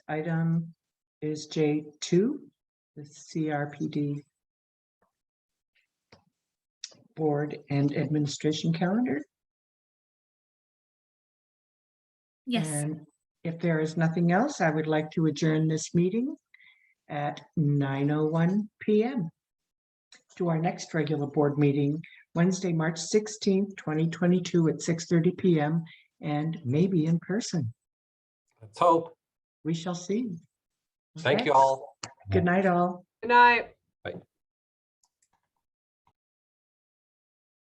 item is J two, the CRPD Board and Administration Calendar. Yes, And if there is nothing else, I would like to adjourn this meeting at nine oh one PM to our next regular board meeting, Wednesday, March sixteenth, twenty twenty-two at six thirty PM and maybe in person. Let's hope. We shall see. Thank Okay? you all. Good night, all. Good night.